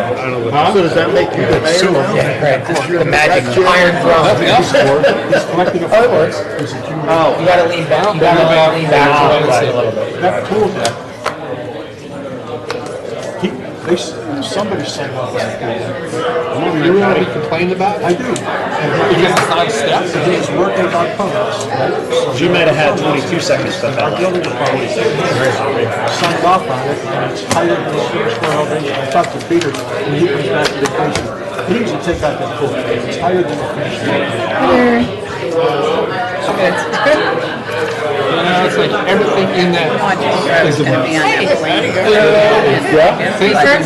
I don't know. Huh? what So does that make you the mayor now? Right, the magic iron Nothing else throne. Oh, He's collecting a. Other words, Oh, you gotta lean back, you gotta lean back a little bit. that pool deck. He, they, s- somebody signed off on that pool deck. You know what he complained about? I do. Because it's not a step? He's working on pumps. You might have had 22 seconds, but Our that building department signed off on it, and it's higher than the six floor elevation. I talked to Peter, and he comes back to the question, he needs to take out that pool, it's higher than the finished floor. Now it's like everything in that is about things that Let's been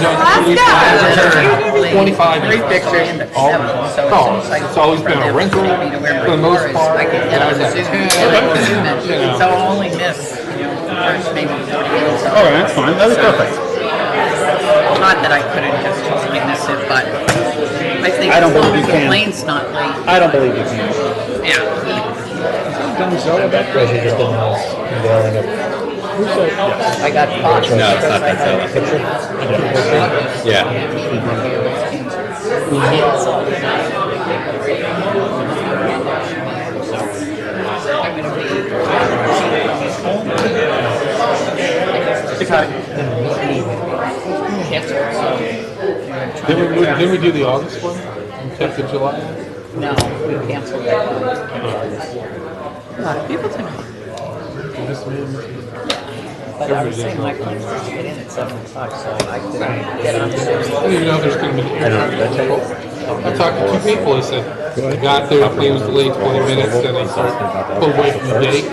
done for go. Twenty-five Three years. pictures in the seven, so Oh, it's like. it's always been a rental for the most part. I could And get I on was Zoom, like, and do it. so I'll only miss, you know, the first maybe forty minutes. All right, that's fine. That was perfect. Not that I couldn't have totally missed it, but I think I don't as long believe as the you can. lane's not late, I don't believe you can. yeah. Treasure just didn't know. They all end up- I got caught. No, it's not that Yeah. Then we, moved- then we do the August one, and kept the July. No, we canceled that one. A lot of people tonight. But I was saying, my plans was to get in at seven o'clock, so I couldn't get on I didn't even know there's gonna be air people. I talked to two people, they said, I got there, the plane was delayed twenty minutes, and they started, pulled away from the gate.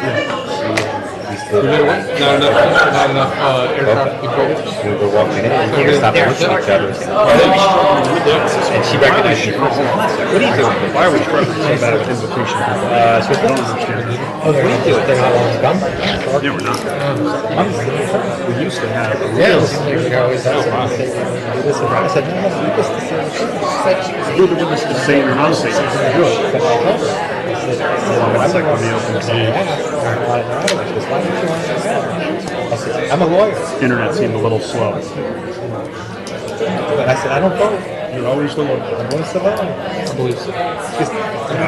We didn't wait, Not enough, not enough, uh, air traffic control. We were walking in, and we were stopping and looking at each other. And she recognized me. What are you doing? Why are we trying to say about it with invocation? Uh, so I don't understand. Oh, we do it, they're not all gum. Yeah, we're not. We used to have. a- Yes. I said, no, no, you just decide what you want." She said, We're the ones that say it or not say it. Good. "But I told her." I said- I said, Well, "I'm it's like not on the open gonna sea. ask her a lot of hours, because why don't you want to sell?" I said, I'm a lawyer, Internet seemed a little slow. but I said, I don't vote, You're always the one. I'm always the lawyer. I believe so. Just, I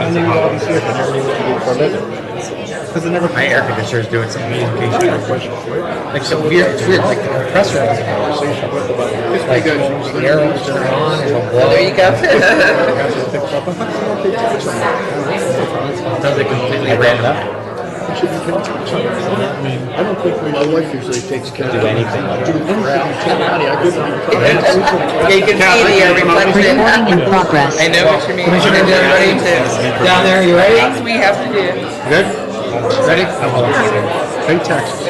knew all these years, I never knew what to do for a living. Because I never. My air conditioner is doing some communication. Like so weird, it's weird, like the compressor has a conversation. It's like, the air will turn on, and it'll blow. There you go. Does it completely random? I don't think, we- my wife usually takes care of. Do anything. Do anything, honey, I give her. You can see the uh, reflection. in progress. I know what you mean. Commissioner, ready to, Down there, you ready? things we have to do. Good? Ready? I'm all excited. Pay taxes.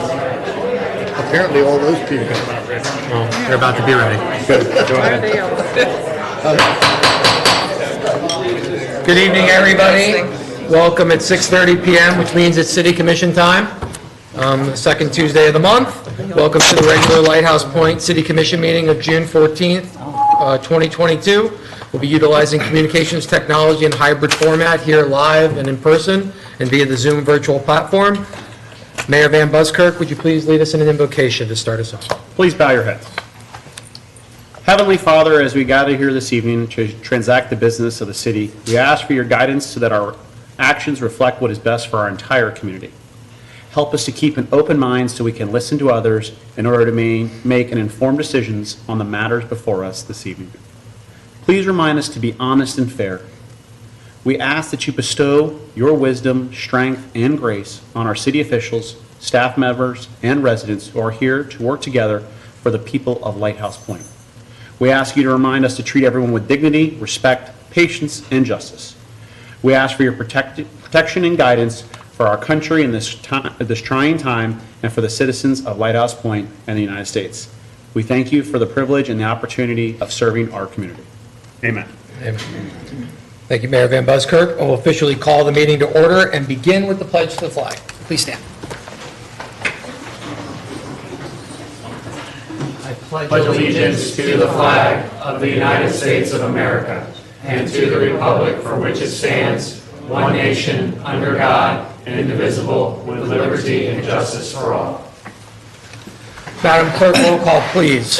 Apparently all those people. They're about to be ready. Good. Go ahead. Good evening, everybody. Welcome at 6:30 PM, which means it's city commission time, um, the second Tuesday of the month. Welcome to the regular Lighthouse Point City Commission meeting of June 14th, uh, 2022. We'll be utilizing communications technology in hybrid format here live and in person and via the Zoom virtual platform. Mayor Van Buskirk, would you please lead us in an invocation to start us off? Please bow your heads. Heavenly Father, as we gather here this evening to transact the business of the city, we ask for your guidance so that our actions reflect what is best for our entire community. Help us to keep an open mind so we can listen to others in order to ma- make an informed decisions on the matters before us this evening. Please remind us to be honest and fair. We ask that you bestow your wisdom, strength, and grace on our city officials, staff members, and residents who are here to work together for the people of Lighthouse Point. We ask you to remind us to treat everyone with dignity, respect, patience, and justice. We ask for your protect- protection and guidance for our country in this ti- this trying time and for the citizens of Lighthouse Point and the United States. We thank you for the privilege and the opportunity of serving our community. Amen. Thank you, Mayor Van Buskirk. I'll officially call the meeting to order and begin with the pledge to the flag. Please stand. pledge allegiance to the flag of the United States of America and to the republic for which it stands, one nation, under God, indivisible, with liberty and justice for all. Madam Clerk, roll call, please.